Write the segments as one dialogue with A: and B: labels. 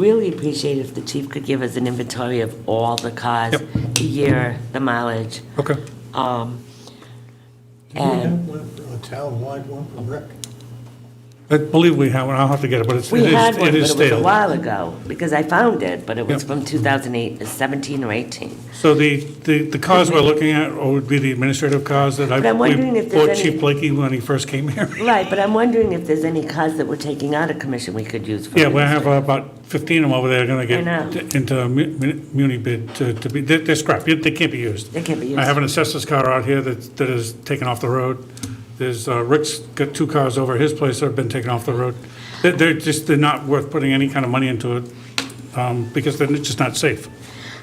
A: Really appreciate if the chief could give us an inventory of all the cars,
B: Yep.
A: the year, the mileage,
B: Okay.
A: um,
C: Do we
A: and
C: have one, a town-wide one for rec?
B: I believe we have one, I'll have to get it, but it's,
A: we
B: it
A: had
B: is,
A: one, but
B: it
A: it
B: is
A: was a
B: stale.
A: while ago, because I found it, but it was
B: Yep.
A: from 2008, 17 uh, or 18.
B: So the, the, the cars we're looking at would be the administrative cars that I,
A: But I'm wondering
B: we
A: if there's
B: bought
A: any-
B: Chief Blakey when he first came here.
A: Right, but I'm wondering if there's any cars that we're taking out of commission we could use for.
B: Yeah, we have
A: administrative.
B: about 15 of them over there going
A: I know.
B: to get into a mu- mu- muni bid to to be, they're they're scrap, they can't be used.
A: They can't be
B: I have
A: used.
B: an assessor's car out here that, that is taken off the road. There's, uh, Rick's got two cars over at his place that have been taken off the road. They're, they're just, they're not worth putting any kind of money into it, um, because they're just not safe.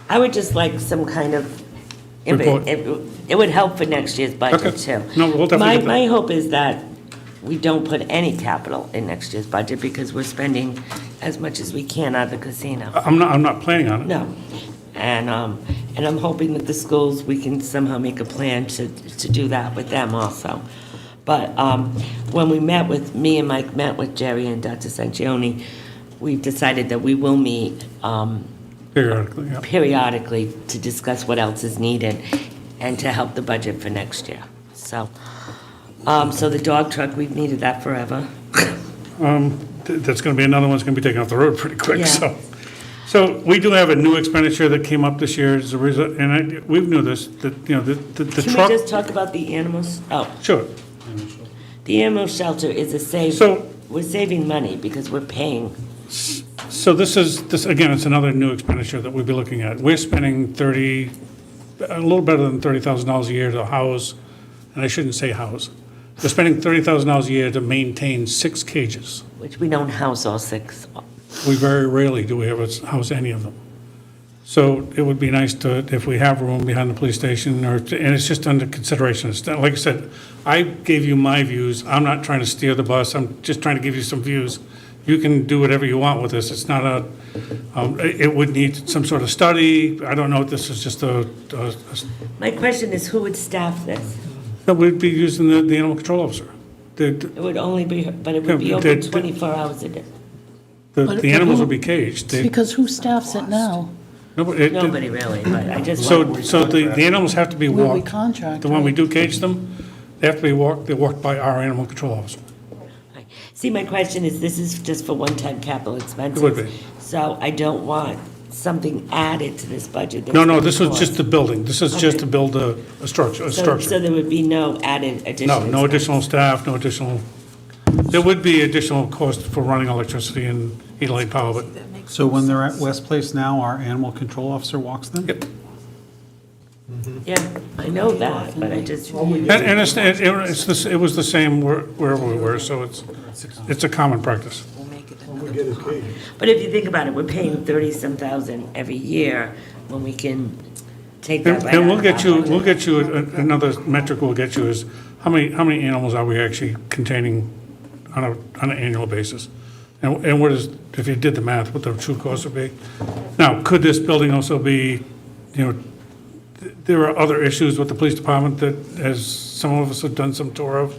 A: I would just like some kind of, it
B: Report.
A: would- it would- it would help for next year's budget
B: Okay.
A: too.
B: No, we'll definitely
A: My-
B: get that.
A: My hope is that we don't put any capital in next year's budget because we're spending as much as we can out of the casino.
B: I'm not, I'm not planning on it.
A: No. And, um, and I'm hoping that the schools, we can somehow make a plan to, to do that with them also. But, um, when we met with, me and Mike met with Jerry and Dr. Sanchioni, we decided that we will meet, um,
B: Periodically, yeah.
A: periodically to discuss what else is needed and to help the budget for next year. So, um, so the dog truck, we've needed that forever.
B: Th- That's going to be another one's going to be taken off the road pretty
A: Yeah.
B: quick, so. So we do have a new expenditure that came up this year as a result, and I, we knew this, that, you know, the, the the
A: Can
B: truck.
A: we just talk about the animals? Oh,
B: Sure.
A: the animal shelter is a save,
B: So-
A: we're saving money because we're paying.
B: So this is, this, again, it's another new expenditure that we'd be looking at. We're spending 30, a little better than $30,000 a year to house, and I shouldn't say house. We're spending $30,000 a year to maintain six cages.
A: Which we don't house all six.
B: We very rarely do we ever house any of them. So it would be nice to, if we have room behind the police station, or, and it's just under consideration. It's not- Like I said, I gave you my views, I'm not trying to steer the bus, I'm just trying to give you some views. You can do whatever you want with this, it's not a, um, it it would need some sort of study, I don't know, this is just a, a- a-
A: My question is, who would staff this?
B: no, we'd be using the, the animal control officer. The,
A: It would only be, but it would be
B: Yeah, but
A: open
B: they-
A: 24 hours a day.
B: the,
D: But-
B: the animals would be caged. They-
D: Because who staffs it now?
B: nobody- it-
A: Nobody really, but I just.
B: So, so the, the animals have to be
D: Will we
B: walked.
D: contract?
B: The one we do cage them, they have to be walked, they're walked by our animal control officer.
A: See, my question is, this is just for one-time capital expenses.
B: would be.
A: So I don't want something added to this budget. that's
B: No, no,
A: gonna
B: this was
A: cause-
B: just the building, this is just to build a, a structure, a
A: So- So
B: structure.
A: there would be no added additional.
B: No, no additional staff, no additional, there would be additional cost for running electricity and heat and light power, but
E: So when they're at West Place now, our animal control officer walks them?
B: Yep.
A: expense. Yeah, I know that, but I just,
B: And, and it's, it it was the s- it was the same where- wherever we were, so it's, it's a common practice.
C: When we get a cage?
A: but if you think about it, we're paying thirty-some thousand every year when we can take that
B: And
A: right out
B: and we'll
A: of our
B: get you,
A: budget.
B: we'll get you, a- a- another metric we'll get you is, how many, how many animals are we actually containing on a, on an annual basis? And, and what is, if you did the math, what the true cost would be? Now, could this building also be, you know, th- there are other issues with the police department that, as some of us have done some tour of,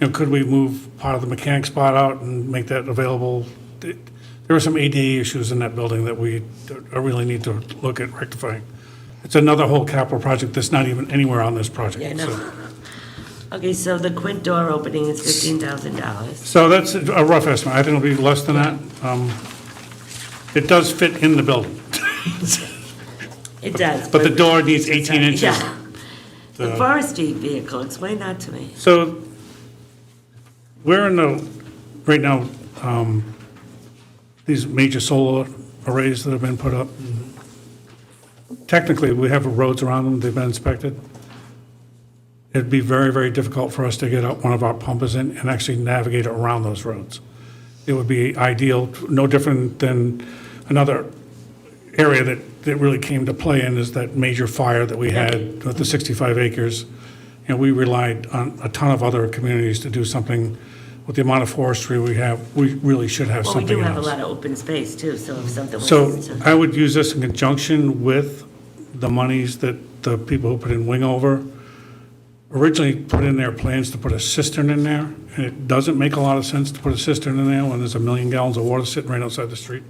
B: you know, could we move part of the mechanic spot out and make that available? Th- There are some ADA issues in that building that we uh, really need to look at rectifying. It's another whole capital project that's not even anywhere on this project.
A: Yeah, I
B: so-
A: know. Okay, so the Quint door opening is fifteen thousand dollars.
B: So that's a rough estimate. I think it'll be less than that. Um, It does fit in the building,
A: It does.
B: but the door needs 18 inches.
A: Yeah. The forestry vehicle, explain that to me.
B: So we're in the, right now, um, these major solar arrays that have been put up. Technically, we have roads around them, they've been inspected. It'd be very, very difficult for us to get out one of our pumpers in and actually navigate around those roads. It would be ideal, no different than another area that, that really came to play in is that major fire that we had with the 65 acres. And we relied on a ton of other communities to do something. With the amount of forestry we have, we really should have
A: Well, we do
B: something
A: have a
B: else.
A: lot of open space too, so if something was
B: So
A: to,
B: I would use this in conjunction with the monies that the people who put in Wingover originally put in their plans to put a cistern in there. And it doesn't make a lot of sense to put a cistern in there when there's a million gallons of water sitting right outside the street.